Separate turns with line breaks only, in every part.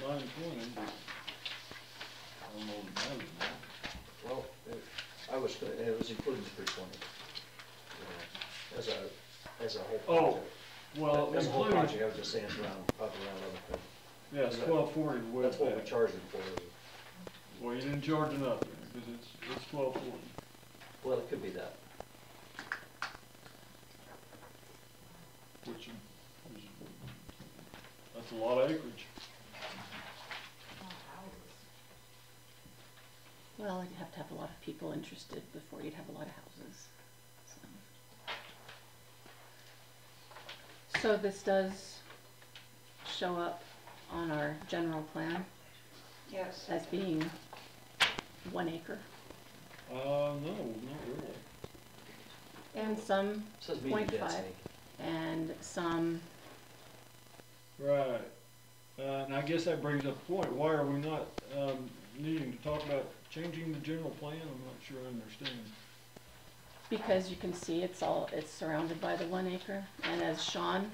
nine twenty, but I don't know the value of that.
Well, it- I was, gonna- it was including the three twenty. Uh, As a, as a whole. project.
Oh, Well,
As a whole project,
including,
I was just saying, it's around, up around other things.
yes, twelve forty with
That's what we
that.
charged them for. is-
Well, you didn't charge enough, because it's, it's twelve forty.
Well, it could be that.
Which is, that's a lot of acreage.
Well, you'd have to have a lot of people interested before you'd have a lot of houses. so. So this does show up on our general plan
Yes.
as being one acre.
Uh, no, not really.
And some,
Says medium
Point five.
density.
and some,
Right. Uh, and I guess that brings up a point. Why are we not, um, needing to talk about changing the general plan? I'm not sure I understand.
because you can see it's all, it's surrounded by the one acre. And as Sean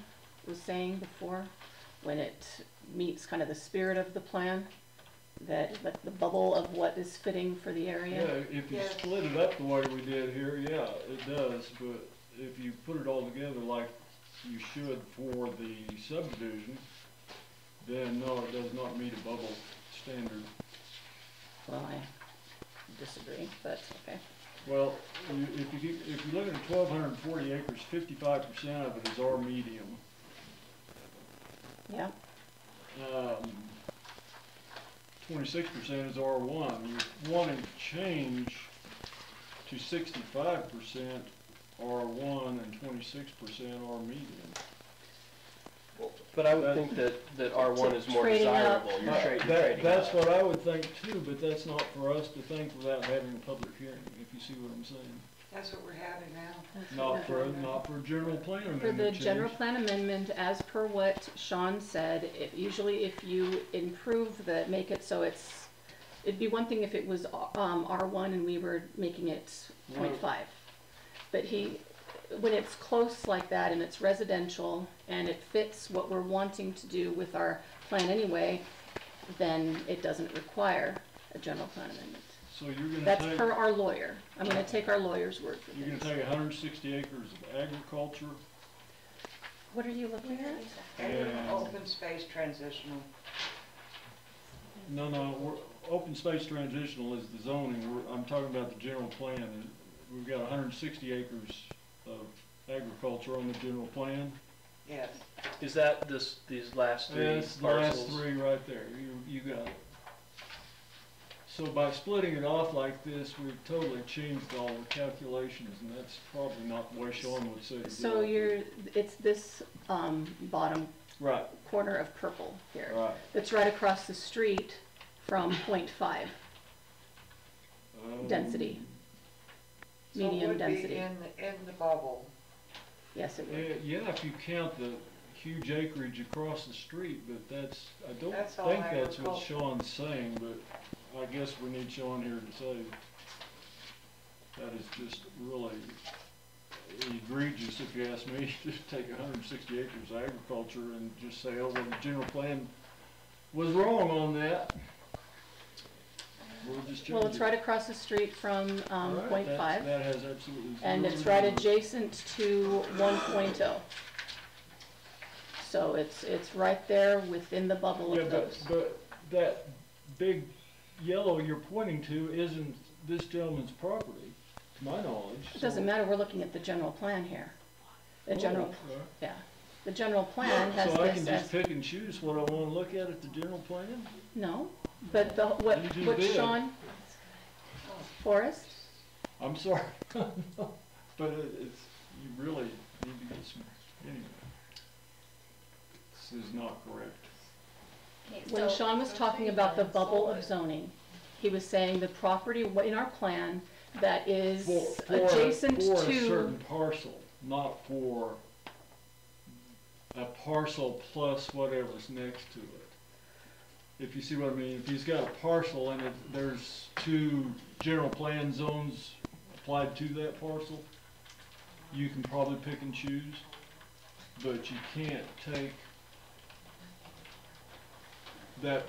was saying before, when it meets kind of the spirit of the plan, that, that the bubble of what is fitting for the area.
Yeah, if you
Yeah.
split it up the way we did here, yeah, it does, but if you put it all together like you should for the subdivision, then no, it does not meet a bubble standard.
Well, I disagree, but okay.
Well, you- if you, get- if you look at twelve hundred and forty acres, fifty-five percent of it is our medium.
Yeah,
Um, Twenty-six percent is R one, you're wanting to change to sixty-five percent R one and twenty-six percent R medium.
But I
That-
would think that, that R one is more
Trading up.
desirable,
Uh,
you're trading,
That-
trading up.
That's what I would think too, but that's not for us to think without having a public hearing, if you see what I'm saying.
That's what we're having now.
Not for, not for general plan
for the
amendment
general
change.
plan amendment, as per what Sean said, it, usually if you improve the, make it so it's, it'd be one thing if it was, um, R one and we were making it point
Right.
five. But he, when it's close like that and it's residential and it fits what we're wanting to do with our plan anyway, then it doesn't require a general plan amendment.
So you're
That's
gonna
per
take,
our lawyer. I'm gonna take our lawyer's word for
you're gonna
things.
take hundred and sixty acres of agriculture
What are you looking at?
and,
Open space transitional.
no, no, we're, open space transitional is the zoning, we're, I'm talking about the general plan. We've got hundred and sixty acres of agriculture on the general plan.
Yes.
Is that this, these last three
That's the last
parcels?
three right there, you, you got it. So by splitting it off like this, we've totally changed all the calculations, and that's probably not the way Sean would say to do it.
So you're, it's this, um, bottom
Right,
corner of purple here.
right,
That's right across the street from point five
um,
density.
So it
Medium
would be
density.
In, the in the bubble.
Yes, it would.
eh, Yeah, if you count the huge acreage across the street, but that's, I don't
That's all
think that's what
agriculture.
Sean's saying, but I guess we need Sean here to say that is just really egregious, if you ask me, to take hundred and sixty acres of agriculture and just say, oh, well, the general plan was wrong on that. We'll just change
Well, it's
it.
right across the street from,
All
um,
right,
point
that's-
five,
That has absolutely.
and
zero
it's
to
right
do with-
adjacent to one oh. So it's, it's right there within the bubble
Yeah,
of
but,
those.
but that big yellow you're pointing to isn't this gentleman's property, to my knowledge.
It doesn't matter, we're looking at the general plan here. The
Oh.
general, yeah, the general plan has
uh, So I can
this
just
as,
pick and choose what I wanna look at at the general plan?
no, but the, what,
You do
what
bid.
Sean? Forrest?
I'm sorry, but it- it's, you really need to get some, anyway. This is not correct.
When Sean was talking about the bubble of zoning, he was saying the property wa- in our plan that is
For, for, a-
adjacent
for a
to,
certain parcel, not for a parcel plus whatever's next to it. If you see what I mean, if he's got a parcel and it, there's two general plan zones applied to that parcel, you can probably pick and choose, but you can't take that